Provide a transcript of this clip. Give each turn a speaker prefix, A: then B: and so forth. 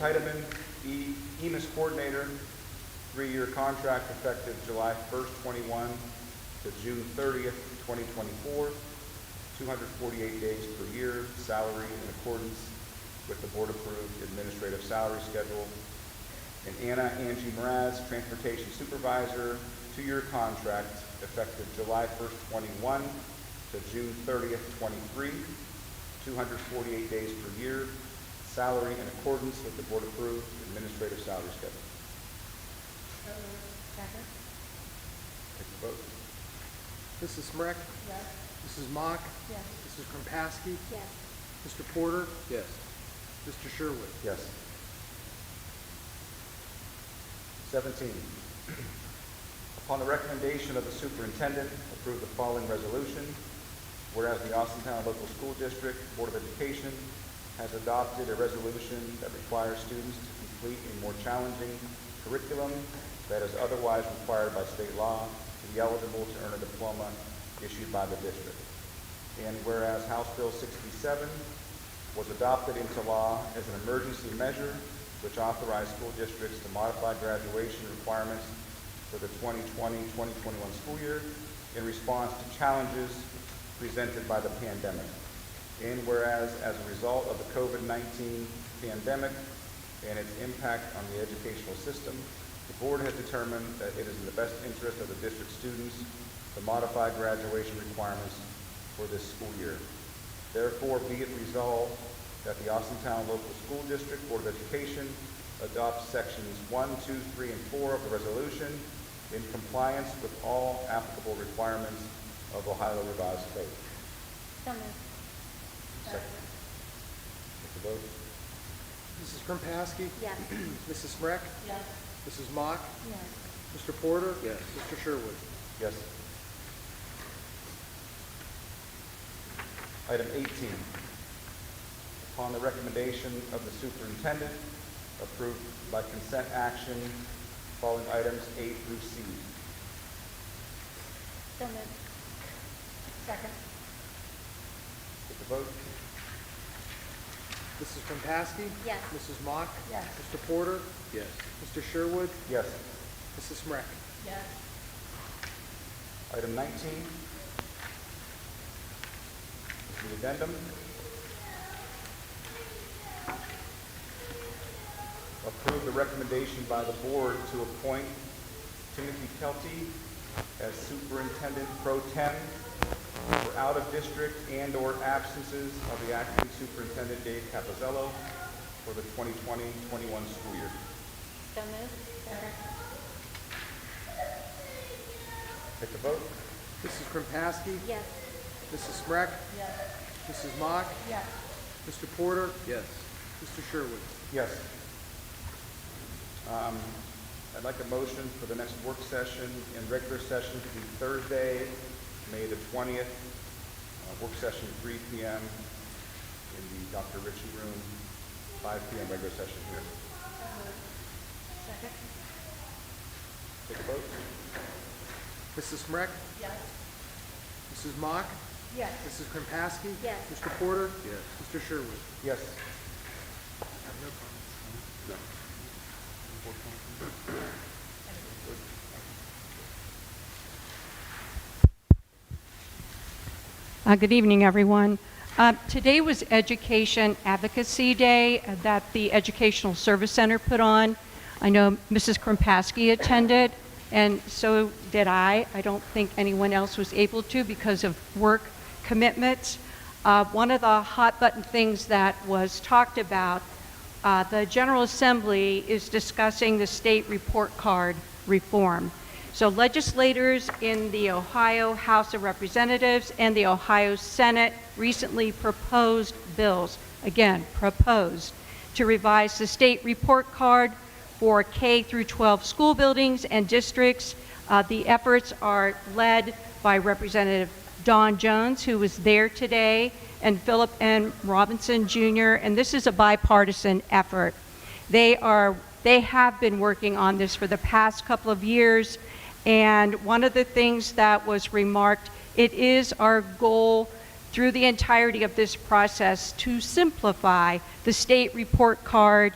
A: Titeman, E- EMIS Coordinator, three-year contract effective July first, twenty-one to June thirtieth, twenty twenty-four, two hundred forty-eight days per year, salary in accordance with the board-approved administrative salary schedule. And Anna Angie Mraz, Transportation Supervisor, two-year contract effective July first, twenty-one to June thirtieth, twenty-three, two hundred forty-eight days per year, salary in accordance with the board-approved administrative salary schedule.
B: Second?
A: Take the vote.
C: Mrs. Smrek?
B: Yes.
C: Mrs. Mock?
B: Yes.
C: Mrs. Kropaski?
B: Yes.
C: Mr. Porter?
D: yes,
C: Mr. Sherwood?
A: Yes. Seventeen, upon the recommendation of the superintendent, approve the following resolution. Whereas the Austintown Local School District Board of Education has adopted a resolution that requires students to complete a more challenging curriculum that is otherwise required by state law to be eligible to earn a diploma issued by the district. And whereas House Bill sixty-seven was adopted into law as an emergency measure which authorized school districts to modify graduation requirements for the 2020-2021 school year in response to challenges presented by the pandemic. And whereas, as a result of the COVID-19 pandemic and its impact on the educational system, the board has determined that it is in the best interest of the district students to modify graduation requirements for this school year. Therefore, be it resolved that the Austintown Local School District Board of Education adopts sections one, two, three, and four of the resolution in compliance with all applicable requirements of Ohio Revised Code.
B: So moved.
A: Second. Take the vote.
C: Mrs. Kropaski?
B: Yes.
C: Mrs. Smrek?
B: Yes.
C: Mrs. Mock?
B: Yes.
C: Mr. Porter?
D: Yes.
C: Mr. Sherwood?
A: Yes. Item 18, upon the recommendation of the superintendent, approved by consent action, following items A through C.
B: So moved. Second?
A: Take the vote.
C: Mrs. Kropaski?
B: Yes.
C: Mrs. Mock?
B: Yes.
C: Mr. Porter?
D: yes,
C: Mr. Sherwood?
A: Yes.
C: Mrs. Smrek?
B: Yes.
A: Item 19, the addendum. Approve the recommendation by the board to appoint Timothy Kelty as superintendent pro tem for out-of-district and/or absences of the acting superintendent Dave Capazello for the 2020-21 school year.
B: So moved. Second?
A: Take the vote.
C: Mrs. Kropaski?
B: Yes.
C: Mrs. Smrek?
B: Yes.
C: Mrs. Mock?
B: Yes.
C: Mr. Porter?
D: yes,
C: Mr. Sherwood?
A: Yes. Um, I'd like a motion for the next work session and regular session to be Thursday, May the 20th, uh, work session 3 PM in the Dr. Ritchie Room, 5 PM regular session here.
B: Second?
A: Take a vote.
C: Mrs. Smrek?
B: Yes.
C: Mrs. Mock?
B: Yes.
C: Mrs. Kropaski?
B: Yes.
C: Mr. Porter?
D: yes.
C: Mr. Sherwood?
A: Yes.
E: Uh, Good evening, everyone. Uh, Today was Education Advocacy Day uh, that the Educational Service Center put on. I know Mrs. Kropaski attended, and so did I. I don't think anyone else was able to because of work commitments. Uh, One of the hot-button things that was talked about, uh, the General Assembly is discussing the state report card reform. So legislators in the Ohio House of Representatives and the Ohio Senate recently proposed bills, again, proposed, to revise the state report card for K through 12 school buildings and districts. Uh, The efforts are led by Representative Don Jones, who was there today, and Philip N. Robinson Jr., and this is a bipartisan effort. They are, they have been working on this for the past couple of years, and one of the things that was remarked, it is our goal through the entirety of this process to simplify the state report card